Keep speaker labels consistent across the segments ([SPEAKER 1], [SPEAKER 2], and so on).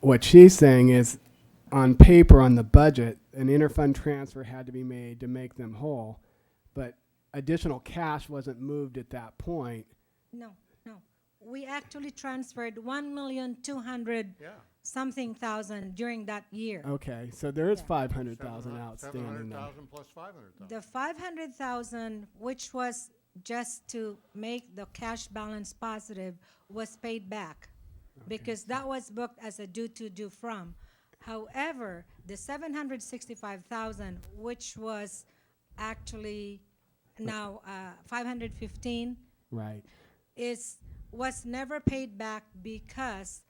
[SPEAKER 1] what she's saying is, on paper, on the budget, an interfund transfer had to be made to make them whole, but additional cash wasn't moved at that point.
[SPEAKER 2] No, no. We actually transferred one million two hundred something thousand during that year.
[SPEAKER 1] Okay, so there is
[SPEAKER 2] Yeah.
[SPEAKER 1] five hundred thousand outstanding
[SPEAKER 3] Seven hundred
[SPEAKER 1] now.
[SPEAKER 3] thousand plus five hundred thousand.
[SPEAKER 2] The five hundred thousand, which was just to make the cash balance positive, was paid back. Because that was booked as a due to, due from. However, the seven hundred sixty-five thousand, which was actually now, uh, five hundred fifteen,
[SPEAKER 1] Right,
[SPEAKER 2] is, was never paid back because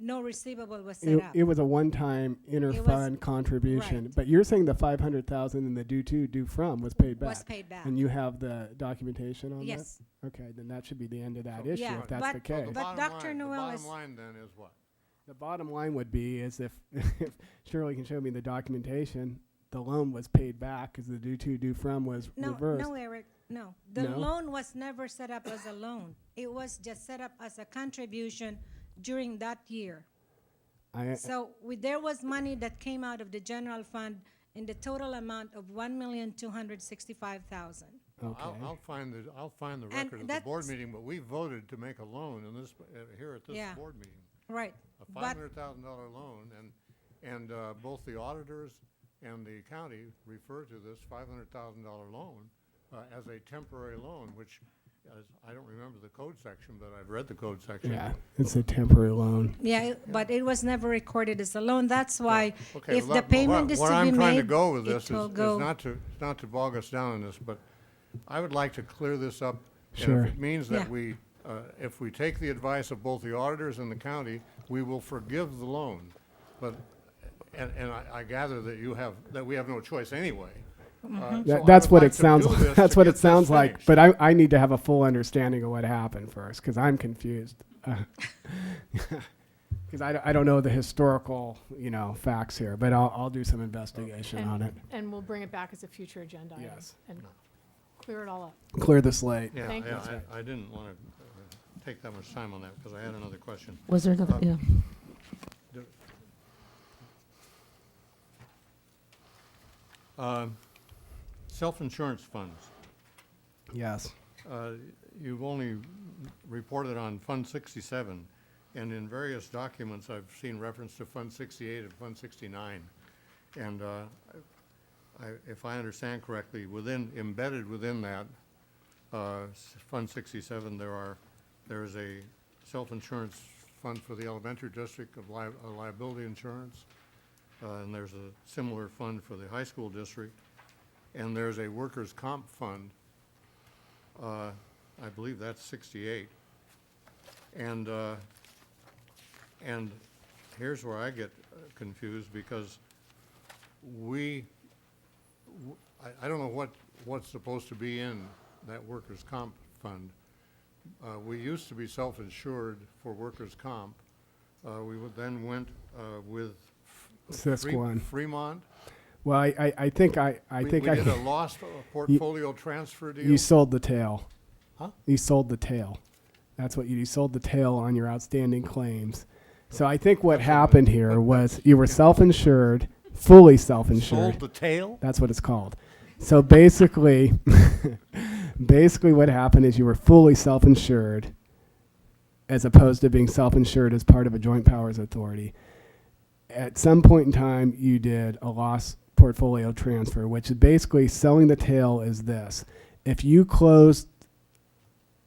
[SPEAKER 2] no receivable was set
[SPEAKER 1] it,
[SPEAKER 2] up.
[SPEAKER 1] it was a one-time interfund contribution,
[SPEAKER 2] right.
[SPEAKER 1] but you're saying the five hundred thousand and the due to, due from was paid back?
[SPEAKER 2] Was paid back.
[SPEAKER 1] And you have the documentation on that?
[SPEAKER 2] Yes.
[SPEAKER 1] Okay, then that should be the end of that issue,
[SPEAKER 2] Yeah,
[SPEAKER 1] if that's the
[SPEAKER 2] but-
[SPEAKER 1] case.
[SPEAKER 2] but Dr. Noel is-
[SPEAKER 3] The bottom line then is what?
[SPEAKER 1] The bottom line would be is if, if Shirley can show me the documentation, the loan was paid back because the due to, due from was
[SPEAKER 2] No,
[SPEAKER 1] reversed.
[SPEAKER 2] no, Eric, no. The
[SPEAKER 1] No?
[SPEAKER 2] loan was never set up as a loan. It was just set up as a contribution during that year.
[SPEAKER 1] I,
[SPEAKER 2] So we, there was money that came out of the general fund in the total amount of one million two hundred sixty-five thousand.
[SPEAKER 3] I'll,
[SPEAKER 1] okay,
[SPEAKER 3] I'll find the, I'll find the
[SPEAKER 2] And
[SPEAKER 3] record of the board
[SPEAKER 2] that's-
[SPEAKER 3] meeting, but we voted to make a loan in this, uh, here at
[SPEAKER 2] Yeah.
[SPEAKER 3] this board meeting.
[SPEAKER 2] Right.
[SPEAKER 3] A five
[SPEAKER 2] But,
[SPEAKER 3] hundred thousand dollar loan and, and, uh, both the auditors and the county refer to this five hundred thousand dollar loan, uh, as a temporary loan, which, as, I don't remember the code section, but I've read the code section.
[SPEAKER 1] yeah, it's a temporary loan.
[SPEAKER 2] yeah, it- but it was never recorded as a loan. That's why
[SPEAKER 3] Okay,
[SPEAKER 2] if the
[SPEAKER 3] well, that- but
[SPEAKER 2] payment
[SPEAKER 3] what-
[SPEAKER 2] is to be
[SPEAKER 3] Where I'm trying to
[SPEAKER 2] made,
[SPEAKER 3] go with this
[SPEAKER 2] it
[SPEAKER 3] is,
[SPEAKER 2] will
[SPEAKER 3] is
[SPEAKER 2] go.
[SPEAKER 3] not to, is not to bog us down in this, but I would like to clear this up.
[SPEAKER 1] Sure.
[SPEAKER 3] And if it means that
[SPEAKER 2] Yeah.
[SPEAKER 3] we, uh, if we take the advice of both the auditors and the county, we will forgive the loan. But, and, and I I gather that you have, that we have no choice anyway.
[SPEAKER 2] Mm-hmm.
[SPEAKER 3] Uh, so I
[SPEAKER 1] That, that's
[SPEAKER 3] would
[SPEAKER 1] what
[SPEAKER 3] like
[SPEAKER 1] it
[SPEAKER 3] to
[SPEAKER 1] sounds,
[SPEAKER 3] do this
[SPEAKER 1] like.
[SPEAKER 3] to
[SPEAKER 1] that's what
[SPEAKER 3] get
[SPEAKER 1] it
[SPEAKER 3] this
[SPEAKER 1] sounds like,
[SPEAKER 3] finished.
[SPEAKER 1] but I, I need to have a full understanding of what happened first because I'm confused. Because I, don't- I don't know the historical, you know, facts here, but I'll, I'll do some investigation
[SPEAKER 4] And-
[SPEAKER 1] on it.
[SPEAKER 4] And we'll bring it back as a future agenda item.
[SPEAKER 1] Yes.
[SPEAKER 4] And clear it all up.
[SPEAKER 1] Clear the slate.
[SPEAKER 3] Yeah,
[SPEAKER 4] Thank you.
[SPEAKER 3] yeah, I, I didn't want to take that much time on that because I had another question.
[SPEAKER 5] Was there another,
[SPEAKER 3] Uh,
[SPEAKER 5] yeah.
[SPEAKER 2] Uh,
[SPEAKER 3] Um, Self-insurance funds.
[SPEAKER 1] Yes.
[SPEAKER 3] Uh, You've only reported on Fund 67, and in various documents, I've seen reference to Fund 68 and Fund 69. And uh, I- if I understand correctly, within, embedded within that, uh, s- Fund 67, there are, there is a self-insurance fund for the elementary district of li- uh, liability insurance, uh, and there's a similar fund for the high school district, and there's a workers' comp fund uh, I believe that's 68. And, uh, and here's where I get uh, confused, because we, w- I, I don't know what, what's supposed to be in that workers' comp fund. Uh, We used to be self-insured for workers' comp. Uh, We would- then went uh, with. F- Fre-
[SPEAKER 1] Sisquan.
[SPEAKER 3] Fremont.
[SPEAKER 1] Well, I, I, I think I, I
[SPEAKER 3] We-
[SPEAKER 1] think
[SPEAKER 3] We
[SPEAKER 1] I,
[SPEAKER 3] did a lost uh, portfolio transfer deal.
[SPEAKER 1] you sold the tail.
[SPEAKER 3] Huh?
[SPEAKER 1] You sold the tail. That's what you, you sold the tail on your outstanding claims. So I think what happened here was you were self-insured, fully
[SPEAKER 3] Sold
[SPEAKER 1] self-insured.
[SPEAKER 3] the tail?
[SPEAKER 1] That's what it's called. So basically, basically what happened is you were fully self-insured as opposed to being self-insured as part of a joint powers authority. At some point in time, you did a loss portfolio transfer, which is basically selling the tail is this. If you closed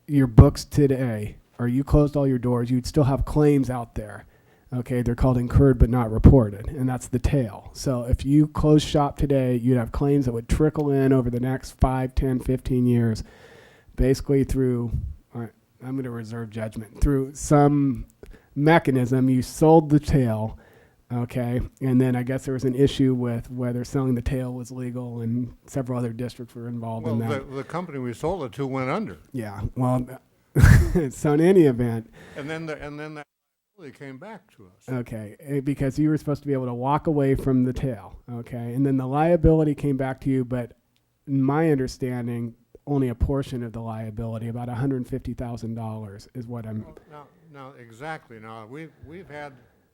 [SPEAKER 1] your books today or you closed all your doors, you'd still have claims out there. Okay, they're called incurred but not reported, and that's the tail. So if you close shop today, you'd have claims that would trickle in over the next 5, 10, 15 years, basically through, all right, I'm going to reserve judgment, through some mechanism. You sold the tail, okay, and then I guess there was an issue with whether selling the tail was legal, and several other districts were involved
[SPEAKER 3] Well,
[SPEAKER 1] in that.
[SPEAKER 3] the, the company we sold it to went under,
[SPEAKER 1] Yeah. Well, so in any event,
[SPEAKER 3] and then the, and then that they came back to us.
[SPEAKER 1] okay, eh, because you were supposed to be able to walk away from the tail, okay, and then the liability came back to you, but in my understanding, only a portion of the liability, about one hundred fifty thousand dollars, is what I'm.
[SPEAKER 3] Now, now exactly. Now we we've had